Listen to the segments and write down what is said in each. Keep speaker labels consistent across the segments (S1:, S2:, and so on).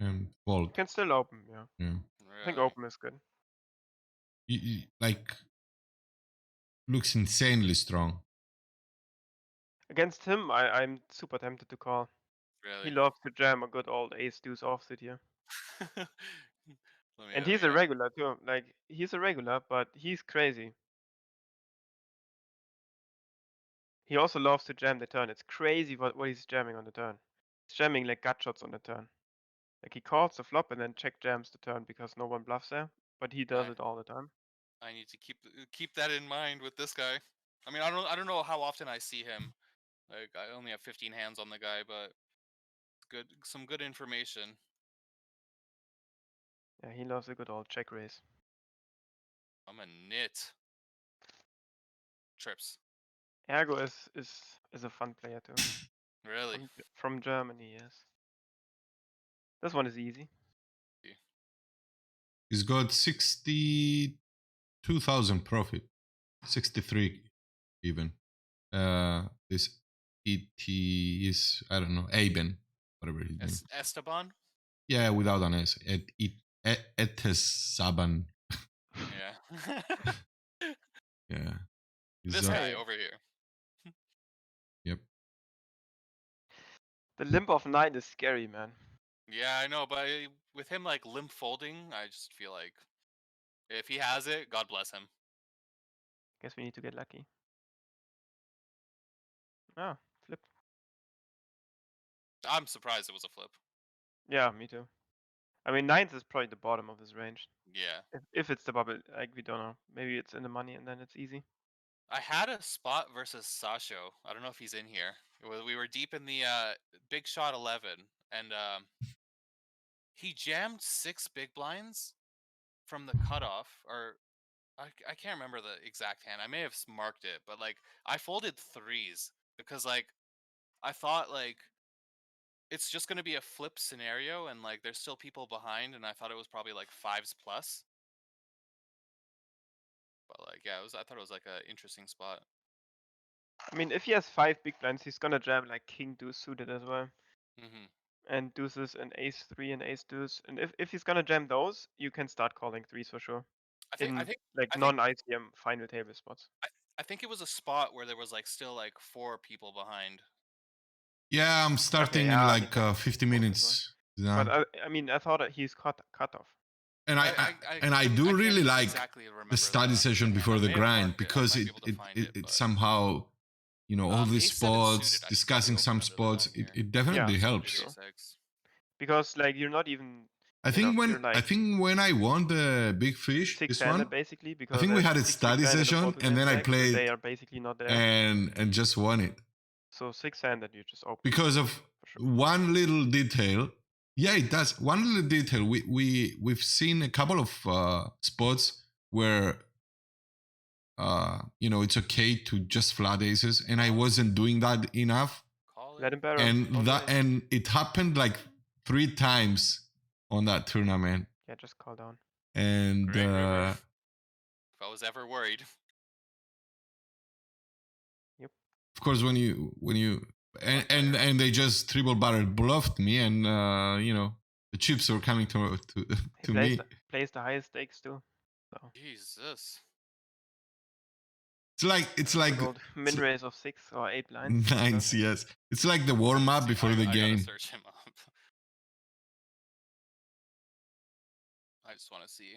S1: um, vault.
S2: You can still open, yeah.
S1: Yeah.
S2: I think open is good.
S1: Y- y- like looks insanely strong.
S2: Against him, I, I'm super tempted to call.
S3: Really?
S2: He loves to jam a good old ace deuce offsuit here.
S3: Let me
S2: And
S3: have
S2: he's
S3: a
S2: a
S3: look.
S2: regular too. Like he's a regular, but he's crazy. He also loves to jam the turn. It's crazy what, what he's jamming on the turn. He's jamming like gut shots on the turn. Like he calls the flop and then check jams the turn because no one bluffs there. But he does
S3: Right.
S2: it all the time.
S3: I need to keep uh, keep that in mind with this guy. I mean, I don't I don't know how often I see him. Like I only have 15 hands on the guy, but good some good information.
S2: Yeah, he loves a good old check raise.
S3: I'm a nit. Trips.
S2: Ergo is is is a fun player too.
S3: Really?
S2: From, Ge- from Germany, yes. This one is easy.
S1: He's got sixty-two thousand profit, sixty-three even. Uh, this it is I don't know Aben, whatever his name.
S3: Es- Esteban?
S1: Yeah, without an S. It it E, et- Etesaban.
S3: Yeah.
S1: Yeah. He's,
S3: this
S1: uh,
S3: guy over here.
S2: The limp of nine is scary, man.
S3: Yeah, I know, but I, with him like limp folding, I just feel like if he has it, God bless him.
S2: Guess we need to get lucky. Ah, flip.
S3: I'm surprised it was a flip.
S2: Yeah, me too. I mean, nines is probably the bottom of this range.
S3: Yeah.
S2: If, if it's the bubble, like we don't know. Maybe it's in the money and then it's easy.
S3: I had a spot versus Sasho. I don't know if he's in here. It was, we were deep in the uh, big shot 11, and um, he jammed six big blinds from the cutoff, or I, c- I can't remember the exact hand. I may have s- marked it, but like I folded threes because like I thought like it's just gonna be a flip scenario, and like there's still people behind, and I thought it was probably like fives plus. But like yeah, it was. I thought it was like an interesting spot.
S2: I mean, if he has five big blinds, he's gonna jam like king deuce suited as well,
S3: hmm
S2: and deuces and ace three and ace deuce. And if if he's gonna jam those, you can start calling threes for sure.
S3: I think I
S2: in,
S3: think
S2: like
S3: I think-
S2: non ICM final table spots.
S3: I think it was a spot where there was like still like four people behind.
S1: yeah, I'm starting
S2: yeah,
S1: in
S2: I
S1: like uh, 50 minutes. now.
S2: But uh, I, I mean, I thought that he's cut cut off.
S1: and I, I, and I
S3: couldn't-
S1: do
S3: can't
S1: really like
S3: exactly remember
S1: the study session
S3: offhand.
S1: before
S3: I
S1: the
S3: may have
S1: grind
S3: marked it. I
S1: because
S3: might
S1: it
S3: be able to
S1: it,
S3: find
S1: it, it
S3: but-
S1: somehow you know all
S3: Um,
S1: these
S3: ace seven suited,
S1: spots
S3: I think, is
S1: discussing some
S3: open under the
S1: spots
S3: gun
S1: it,
S3: here.
S1: it definitely
S2: Yeah.
S1: helps
S2: Sure.
S3: Six.
S2: Because like you're not even
S1: i
S2: You
S1: think
S2: know,
S1: when
S2: you're like
S1: i think when i won the big fish
S2: six
S1: this
S2: handed
S1: one
S2: basically. Because
S1: think we
S2: there's
S1: had a
S2: six big
S1: study
S2: blind a
S1: session,
S2: four to
S1: and
S2: jam
S1: then I
S2: back, so They
S1: played-
S2: are basically not there.
S1: and and just won it
S2: So six handed, you just open
S1: because of
S2: for sure.
S1: one little detail yeah it does one little detail we we we've seen a couple of uh spots where uh you know it's okay to just flat aces and i wasn't doing that enough
S3: Call
S2: Let
S3: it.
S2: him barrel.
S1: and
S2: all
S1: that
S2: day.
S1: and it happened like three times on that tournament
S2: yeah, just call down.
S1: and
S3: Great river.
S1: uh,
S3: If I was ever worried,
S1: of course when you when you and, and and they just triple barrel bluffed me and uh you know the chips were coming to to,
S2: He
S1: to
S2: plays,
S1: me
S2: The, plays the highest stakes too. So
S3: Jesus.
S1: it's like it's like
S2: good old min raise of six or eight blinds. so
S1: nine
S2: perfect.
S1: yes it's like the warm-up
S3: See,
S1: before
S3: I,
S1: the
S3: I gotta
S1: game
S3: search him up. I just want to see.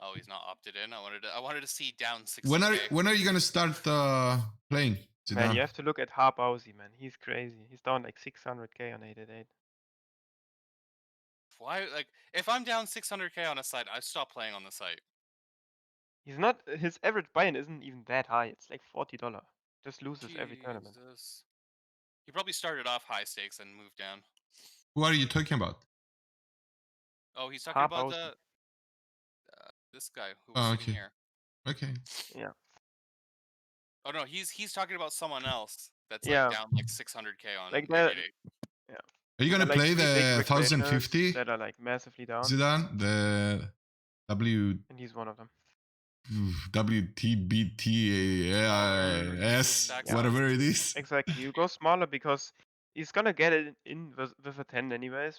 S3: Oh, he's not opted in. I wanted to. I wanted to see down six.
S1: when are when are you gonna start uh playing
S2: Man,
S1: Zidane?
S2: you have to look at Harbausi, man. He's crazy. He's down like 600k on 888.
S3: Why? Like, if I'm down 600k on a site, I stop playing on the site.
S2: He's not. His average buy-in isn't even that high. It's like forty dollar. Just loses every tournament.
S3: Jesus. He probably started off high stakes and moved down.
S1: who are you talking about
S3: Oh, he's talking
S2: Top
S3: about
S2: Aussie.
S3: the uh, this guy who was
S1: Oh,
S3: sitting
S1: okay.
S3: here.
S1: okay
S3: Oh no, he's he's talking about someone else that's
S2: Yeah.
S3: like down like 600k on.
S2: Like
S3: Like
S2: that-
S1: are you
S2: They're
S1: gonna
S2: like
S1: play
S2: three
S1: the
S2: big recreationals
S1: 1050
S2: that are like massively down,
S1: Zidane the W
S2: and he's one of them.
S1: WTBTAS,
S3: Exactly.
S1: whatever it is.
S2: Exactly. You go smaller because he's gonna get it in with, with a ten anyways,